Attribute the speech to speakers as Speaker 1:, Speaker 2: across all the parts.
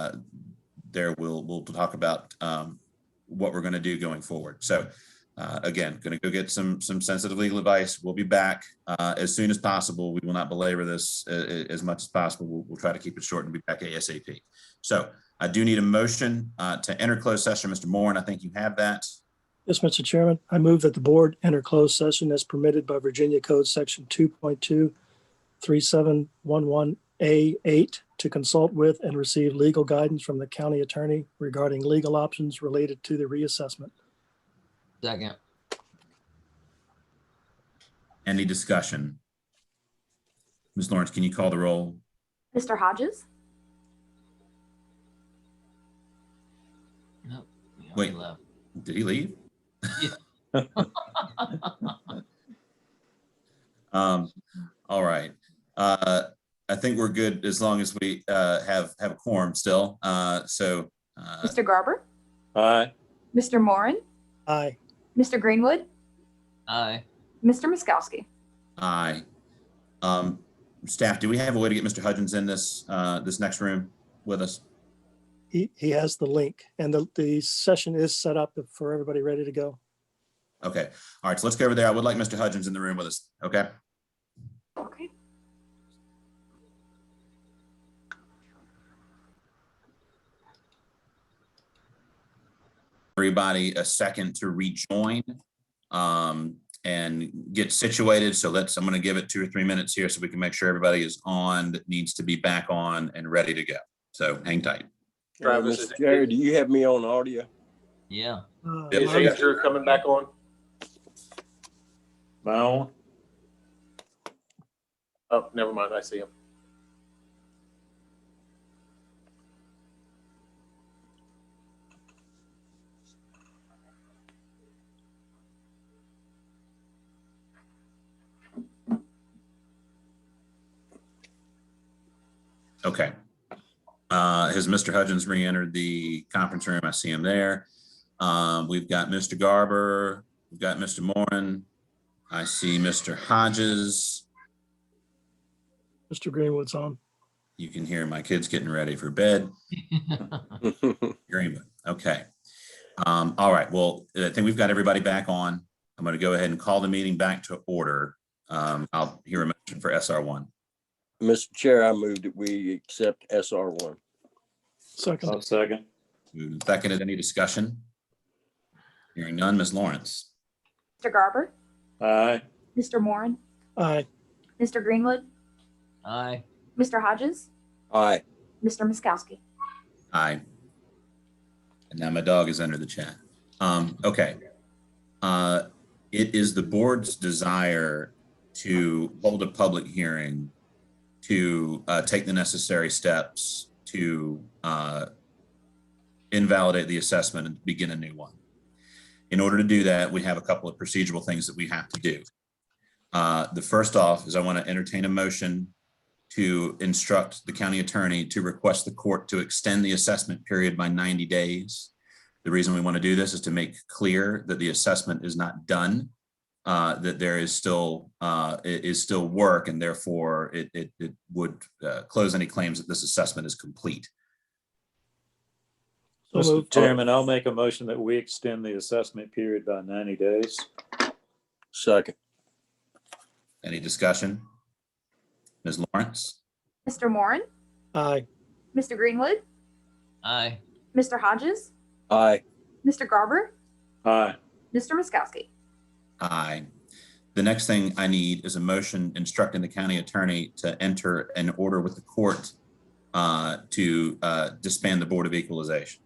Speaker 1: uh, there we'll, we'll talk about um, what we're going to do going forward. So uh, again, going to go get some, some sensitive legal advice. We'll be back uh, as soon as possible. We will not belabor this uh, as much as possible. We'll, we'll try to keep it short and be back ASAP. So I do need a motion uh, to enter closed session. Mr. Moore, and I think you have that.
Speaker 2: Yes, Mr. Chairman, I move that the board enter closed session as permitted by Virginia Code Section 2.23711A8 to consult with and receive legal guidance from the county attorney regarding legal options related to the reassessment.
Speaker 3: Second.
Speaker 1: Any discussion? Ms. Lawrence, can you call the roll?
Speaker 4: Mr. Hodges?
Speaker 3: We
Speaker 1: Wait.
Speaker 3: already left.
Speaker 1: Did he leave?
Speaker 3: Yeah.
Speaker 1: Um, all right. Uh, I think we're good as long as we, uh, have, have a quorum still. Uh, so, uh,
Speaker 4: Mr. Garber?
Speaker 5: Aye.
Speaker 4: Mr. Moran?
Speaker 2: Aye.
Speaker 4: Mr. Greenwood?
Speaker 3: Aye.
Speaker 4: Mr. Miskowski?
Speaker 1: aye. Um, staff, do we have a way to get Mr. Hudgens in this, uh, this next room with us?
Speaker 2: He, he has the link and the, the session is set up for everybody ready to go.
Speaker 1: Okay. All right. So let's go over there. I would like Mr. Hudgens in the room with us. Okay.
Speaker 4: Okay.
Speaker 1: everybody a second to rejoin um, and get situated. So let's, I'm going to give it two or three minutes here so we can make sure everybody is on, that needs to be back on and ready to go. So hang tight.
Speaker 5: Travis,
Speaker 6: Travis,
Speaker 5: Mr. Jerry, do you have me on audio?
Speaker 3: Yeah.
Speaker 2: Uh,
Speaker 1: Yeah,
Speaker 6: Is Andrew coming back on?
Speaker 5: No.
Speaker 6: Oh, never mind. I see him.
Speaker 1: Okay. Uh, Has Mr. Hudgens re-entered the conference room? I see him there. Um, We've got Mr. Garber, we've got Mr. Moran. I see Mr. Hodges.
Speaker 2: Mr. Greenwood's on.
Speaker 1: You can hear my kids getting ready for bed. Greenwood, okay. Um, all right, well, I think we've got everybody back on. I'm gonna go ahead and call the meeting back to order. Um, I'll hear a motion for SR one.
Speaker 5: Mr. Chair, I move that we accept SR one.
Speaker 2: Second,
Speaker 5: second.
Speaker 1: Moved and seconded, any discussion? Hearing none, Ms. Lawrence.
Speaker 4: Mr. Garber?
Speaker 5: Aye.
Speaker 4: Mr. Moran?
Speaker 2: aye.
Speaker 4: Mr. Greenwood?
Speaker 3: Aye.
Speaker 4: Mr. Hodges?
Speaker 5: Aye.
Speaker 4: Mr. Miskowski?
Speaker 1: Aye. And now my dog is under the chat. Um, okay. Uh, it is the board's desire to hold a public hearing to uh, take the necessary steps to uh, invalidate the assessment and begin a new one. In order to do that, we have a couple of procedural things that we have to do. Uh, the first off is I want to entertain a motion to instruct the county attorney to request the court to extend the assessment period by 90 days. The reason we want to do this is to make clear that the assessment is not done, uh, that there is still, uh, i- is still work, and therefore it, it, it would uh, close any claims that this assessment is complete.
Speaker 2: So
Speaker 7: Mr.
Speaker 2: moved.
Speaker 7: Chairman, I'll make a motion that we extend the assessment period by ninety days.
Speaker 5: Second.
Speaker 1: Any discussion? Ms. Lawrence?
Speaker 4: Mr. Moran?
Speaker 2: Aye.
Speaker 4: Mr. Greenwood?
Speaker 3: Aye.
Speaker 4: Mr. Hodges?
Speaker 5: Aye.
Speaker 4: Mr. Garber?
Speaker 7: Aye.
Speaker 4: Mr. Miskowski?
Speaker 1: Aye. The next thing I need is a motion instructing the county attorney to enter an order with the court uh, to uh, disband the Board of Equalization.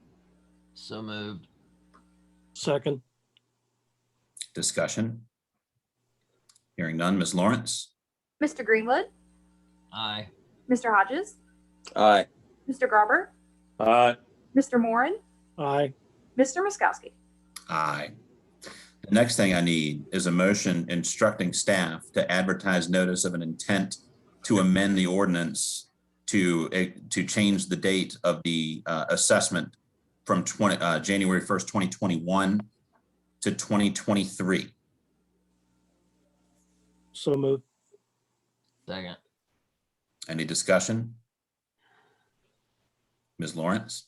Speaker 3: So moved.
Speaker 2: Second,
Speaker 1: Discussion? Hearing none. Ms. Lawrence?
Speaker 4: Mr. Greenwood?
Speaker 3: Aye.
Speaker 4: Mr. Hodges?
Speaker 5: Aye.
Speaker 4: Mr. Garber?
Speaker 7: Aye.
Speaker 4: Mr. Moran?
Speaker 2: aye.
Speaker 4: Mr. Miskowski?
Speaker 1: Aye. The next thing I need is a motion instructing staff to advertise notice of an intent to amend the ordinance to, eh, to change the date of the uh, assessment from 20, uh, January 1st, 2021 to 2023.
Speaker 2: So moved.
Speaker 3: Second.
Speaker 1: Any discussion? Ms. Lawrence?